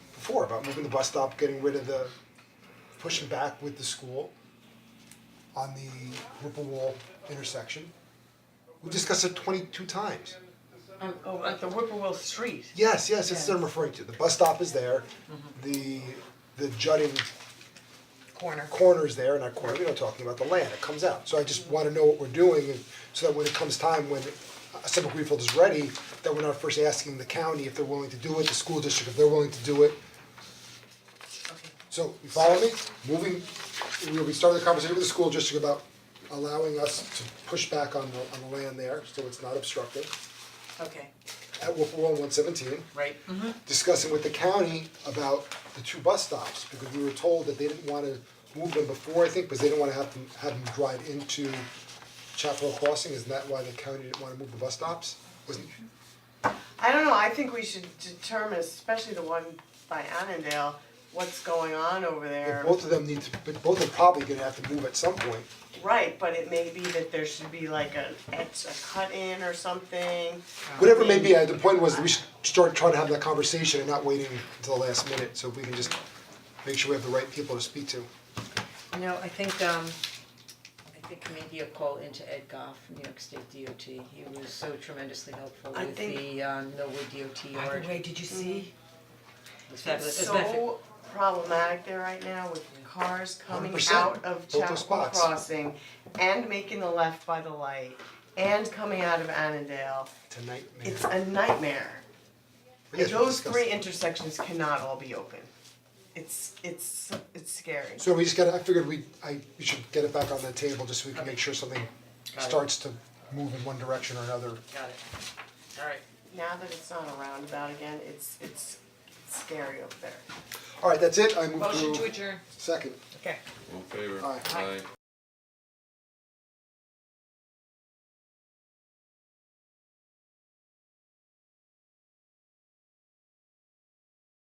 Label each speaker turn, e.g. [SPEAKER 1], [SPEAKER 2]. [SPEAKER 1] before about moving the bus stop, getting rid of the, pushing back with the school on the Whipple Wall intersection. We discussed it twenty-two times.
[SPEAKER 2] Um,
[SPEAKER 3] On, oh, at the Whipplewell Street.
[SPEAKER 1] Yes, yes, that's what I'm referring to. The bus stop is there, the, the jutting
[SPEAKER 3] Corner.
[SPEAKER 1] corners there, not corner, we are not talking about the land, it comes out. So I just wanna know what we're doing, and so that when it comes time, when uh, Suffolk Greenfield is ready, that we're not first asking the county if they're willing to do it, the school district if they're willing to do it. So, you follow me? Moving, we we started the conversation with the school district about allowing us to push back on the, on the land there, so it's not obstructed,
[SPEAKER 3] Okay,
[SPEAKER 1] at Whipple One Seventeen
[SPEAKER 3] right, mhm,
[SPEAKER 1] discussing with the county about the two bus stops, because we were told that they didn't wanna move them before, I think, because they didn't wanna have them, have them drive into Chapel Hill Crossing, isn't that why the county didn't wanna move the bus stops? Wasn't,
[SPEAKER 4] I don't know, I think we should determine, especially the one by Annandale, what's going on over there.
[SPEAKER 1] both of them need to, but both are probably gonna have to move at some point,
[SPEAKER 4] Right, but it may be that there should be like a, it's a cut in or something.
[SPEAKER 1] whatever it may be, uh, the point was, that we should start trying to have that conversation and not waiting until the last minute, so if we can just make sure we have the right people to speak to.
[SPEAKER 2] You know, I think um, I think maybe a call into Ed Goff, New York State DOT, he was so tremendously helpful
[SPEAKER 3] I
[SPEAKER 2] with
[SPEAKER 3] think-
[SPEAKER 2] the uh Millwood DOT
[SPEAKER 3] by
[SPEAKER 2] yard,
[SPEAKER 3] the way, did you see?
[SPEAKER 2] it was fabulous,
[SPEAKER 4] It's
[SPEAKER 2] As a matter of fact,
[SPEAKER 4] so problematic there right now with cars coming
[SPEAKER 1] 100%,
[SPEAKER 4] out of
[SPEAKER 1] both those
[SPEAKER 4] Chapel
[SPEAKER 1] spots.
[SPEAKER 4] Crossing and making the left by the light and coming out of Annandale.
[SPEAKER 1] Tonight, man,
[SPEAKER 4] It's a nightmare.
[SPEAKER 1] we have to
[SPEAKER 4] Those
[SPEAKER 1] discuss
[SPEAKER 4] three
[SPEAKER 1] it.
[SPEAKER 4] intersections cannot all be open. It's, it's, it's scary.
[SPEAKER 1] So we just gotta, I figured we, I, we should get it back on the table, just so we can make sure something
[SPEAKER 2] Got it.
[SPEAKER 1] starts to move in one direction or another.
[SPEAKER 2] Mm-hmm. got it, alright.
[SPEAKER 4] now that it's not a roundabout again, it's it's scary up there.
[SPEAKER 1] Alright, that's it, I move to.
[SPEAKER 2] Motion to adjourn.
[SPEAKER 1] Second.
[SPEAKER 3] Okay.
[SPEAKER 5] All in favor?
[SPEAKER 1] Aye.
[SPEAKER 5] Aye.